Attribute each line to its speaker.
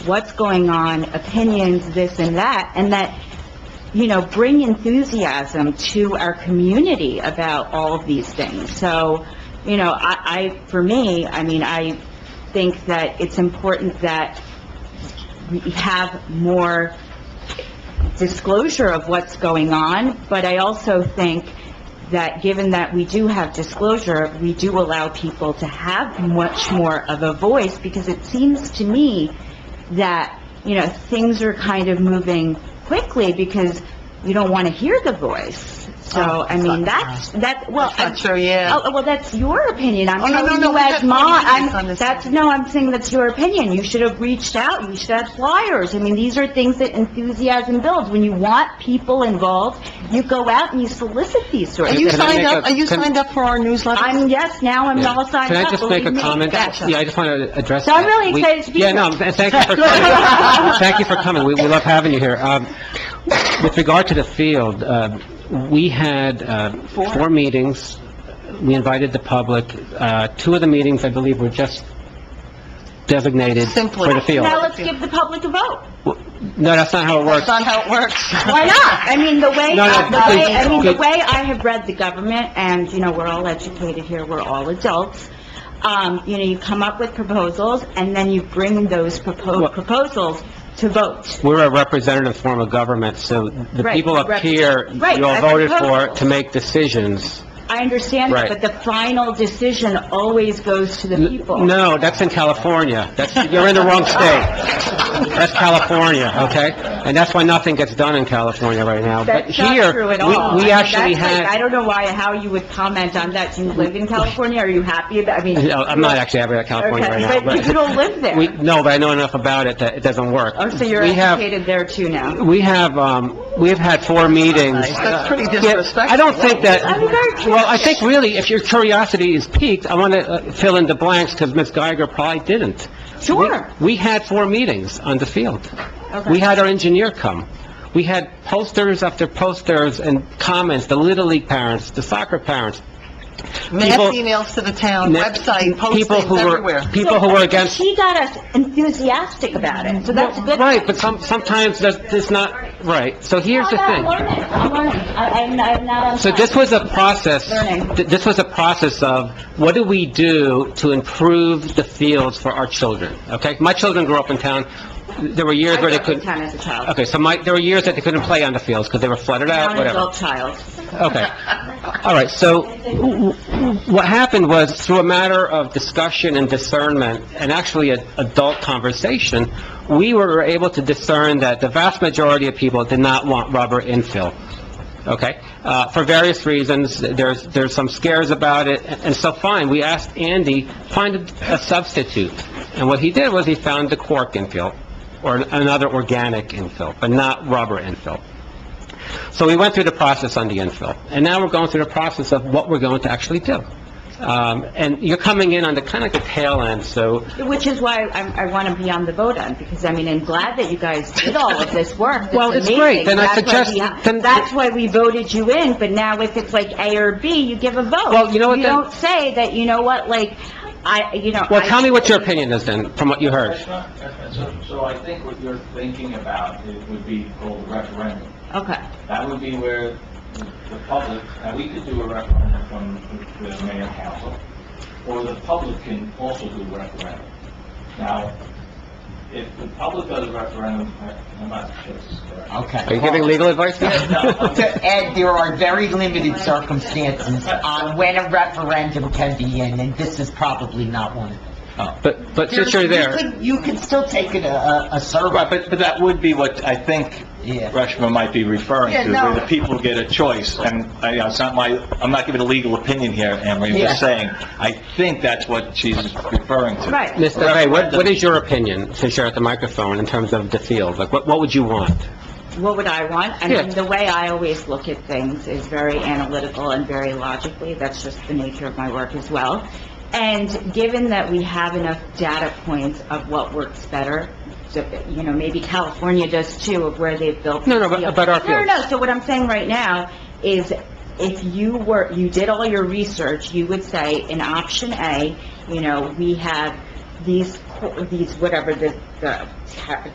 Speaker 1: what's going on, opinions, this and that, and that, you know, bring enthusiasm to our community about all of these things. So, you know, I, I, for me, I mean, I think that it's important that we have more disclosure of what's going on, but I also think that given that we do have disclosure, we do allow people to have much more of a voice, because it seems to me that, you know, things are kind of moving quickly, because we don't want to hear the voice. So, I mean, that's, that, well...
Speaker 2: That's not true, yeah.
Speaker 1: Oh, well, that's your opinion, I'm
Speaker 2: Oh, no, no,
Speaker 1: telling
Speaker 2: no,
Speaker 1: you
Speaker 2: we
Speaker 1: as
Speaker 2: had
Speaker 1: mom,
Speaker 2: 20 minutes on
Speaker 1: I'm,
Speaker 2: this
Speaker 1: that's,
Speaker 2: subject.
Speaker 1: no, I'm saying that's your opinion, you should have reached out, you should have flyers, I mean, these are things that enthusiasm builds, when you want people involved, you go out and you solicit these sorts
Speaker 2: Are
Speaker 1: of
Speaker 2: oh, you
Speaker 1: things.
Speaker 3: Can I
Speaker 2: signed
Speaker 3: make
Speaker 2: up,
Speaker 3: a-
Speaker 2: are you
Speaker 3: can-
Speaker 2: signed up for our newsletter?
Speaker 1: I'm, yes, now I'm all signed
Speaker 3: Can I
Speaker 1: up,
Speaker 3: just make
Speaker 1: believe
Speaker 3: a
Speaker 1: me.
Speaker 3: comment?
Speaker 2: Gotcha.
Speaker 3: Yeah, I just want to address
Speaker 1: So I'm
Speaker 3: that.
Speaker 1: really
Speaker 3: We-
Speaker 1: excited to be
Speaker 3: Yeah,
Speaker 1: here.
Speaker 3: no, and thank you for coming. Thank you for coming. We, we love having you here. Um, with regard to the field, uh, we had, uh, four meetings. We invited the public. Uh, two of the meetings, I believe, were just designated
Speaker 2: Simply.
Speaker 3: for the field.
Speaker 1: Now let's give the public a vote,
Speaker 3: No, that's not how it works.
Speaker 2: That's not how it works.
Speaker 1: why not? I mean, the way,
Speaker 3: No, no,
Speaker 1: the way, I mean, the
Speaker 3: please.
Speaker 1: way I have read the government, and, you know, we're all educated here, we're all adults, um, you know, you come up with proposals, and then you bring those propo-
Speaker 3: Well-
Speaker 1: proposals to vote.
Speaker 3: We're a representative form of government, so the
Speaker 1: Right,
Speaker 3: people up
Speaker 1: rep-
Speaker 3: here,
Speaker 1: Right,
Speaker 3: you all
Speaker 1: as
Speaker 3: voted for
Speaker 1: opposed.
Speaker 3: to make decisions.
Speaker 1: I understand that,
Speaker 3: Right.
Speaker 1: but the final decision always goes to the
Speaker 3: N-
Speaker 1: people.
Speaker 3: No, that's in California. That's, you're in the wrong state. That's California, okay? And that's why nothing gets done in California right now. But
Speaker 1: That's not
Speaker 3: here,
Speaker 1: true at
Speaker 3: we-
Speaker 1: all. I
Speaker 3: We
Speaker 1: mean,
Speaker 3: actually
Speaker 1: that's like- I
Speaker 3: had,
Speaker 1: don't know why, how you would comment on that. Do you live in California? Are you happy about, I mean...
Speaker 3: No, I'm not actually happy about California right now,
Speaker 1: Okay, but you
Speaker 3: but...
Speaker 1: don't live
Speaker 3: we-
Speaker 1: there.
Speaker 3: No, but I know enough about it that it doesn't work.
Speaker 1: Oh, so you're
Speaker 3: We have-
Speaker 1: educated there too now.
Speaker 3: We have, um, we've had four meetings.
Speaker 2: That's pretty
Speaker 3: Yeah,
Speaker 2: disrespectful.
Speaker 3: I don't think that,
Speaker 1: I'm very curious.
Speaker 3: well, I think really, if your curiosity is piqued, I want to fill in the blanks, because Ms. Geiger probably didn't.
Speaker 1: Sure.
Speaker 3: We we had four meetings on the field.
Speaker 1: Okay.
Speaker 3: We had our engineer come. We had posters after posters and comments, the Little League parents, the soccer parents.
Speaker 2: Mass
Speaker 3: People-
Speaker 2: emails to the town,
Speaker 3: ne-
Speaker 2: website,
Speaker 3: people who
Speaker 2: postings
Speaker 3: were-
Speaker 2: everywhere.
Speaker 3: People who were against...
Speaker 1: She got us enthusiastic about it, so that's a good...
Speaker 3: Right, but some, sometimes that's, it's not, right. So here's the
Speaker 1: I'm
Speaker 3: thing.
Speaker 1: learning, I'm learning. I- I'm I'm not on...
Speaker 3: So
Speaker 1: time.
Speaker 3: this was a process,
Speaker 1: Learning.
Speaker 3: th- this was a process of, what do we do to improve the fields for our children, okay? My children grew up in town, there were years
Speaker 1: I
Speaker 3: where they
Speaker 1: grew up in
Speaker 3: couldn't...
Speaker 1: town as a child.
Speaker 3: Okay, so my, there were years that they couldn't play on the fields because they were flooded
Speaker 1: Now
Speaker 3: out,
Speaker 1: an
Speaker 3: whatever.
Speaker 1: adult child.
Speaker 3: Okay. All right, so w- w- what happened was, through a matter of discussion and discernment, and actually an adult conversation, we were able to discern that the vast majority of people did not want rubber infill, okay? Uh, For various reasons, there's, there's some scares about it, and so fine, we asked Andy, find a- a substitute. And what he did was, he found the cork infill, or another organic infill, but not rubber infill. So we went through the process on the infill, and now we're going through the process of what we're going to actually do. Um, and you're coming in on the kind of the tail end, so,
Speaker 1: Which is why I'm, I want to be on the vote on, because, I mean, I'm glad that you guys did all of this work.
Speaker 3: Well, it's great. Then I
Speaker 1: That's amazing.
Speaker 3: suggest-
Speaker 1: That's why we-
Speaker 3: then-
Speaker 1: That's why we voted you in, but now if it's like A or B, you give a vote.
Speaker 3: Well, you know what,
Speaker 1: You
Speaker 3: then-
Speaker 1: don't say that, you know what, like, I, you know...
Speaker 3: well,
Speaker 1: I-
Speaker 3: tell me what your opinion is then, from what you heard.
Speaker 4: That's not- that's- So so I think what you're thinking about it would be called a referendum.
Speaker 1: Okay,
Speaker 4: That would be where the the public, now we could do a referendum from the the mayor council, or the public can also do a referendum. Now, if the public does a referendum, I'm not sure this is correct.
Speaker 3: Are
Speaker 5: Okay.
Speaker 3: you giving legal advice
Speaker 4: No,
Speaker 3: now?
Speaker 4: I'm-
Speaker 5: To Ed, there are very limited circumstances on when a referendum can be in, and this is probably not one.
Speaker 3: But, but since you're
Speaker 5: You
Speaker 3: there,
Speaker 5: could- You could still take it a- a, a
Speaker 4: Right,
Speaker 5: survey,
Speaker 4: but, but that would be what I think
Speaker 5: Yeah.
Speaker 4: Rushman might be referring
Speaker 5: Yeah,
Speaker 4: to,
Speaker 5: no.
Speaker 4: where the people get a choice, and, I, you know, it's not my, I'm not giving a legal opinion here, Emery, I'm just
Speaker 5: Yeah.
Speaker 4: saying, I think that's what she's referring to.
Speaker 1: Right.
Speaker 3: Mr. Ray, what, what is your opinion, since you're at the microphone, in terms of the field? Like, what, what would you want?
Speaker 1: what would I want? I
Speaker 3: Yeah.
Speaker 1: mean, the way I always look at things is very analytical and very logically, that's just the nature of my work as well. And given that we have enough data points of what works better, so, you know, maybe California does too, of where they've built...
Speaker 3: No, no, but- but our
Speaker 1: No, no,
Speaker 3: fields.
Speaker 1: no, so what I'm saying right now is, if you were, you did all your research, you would say, in option A, you know, we have these, co- these, whatever, the, the ta-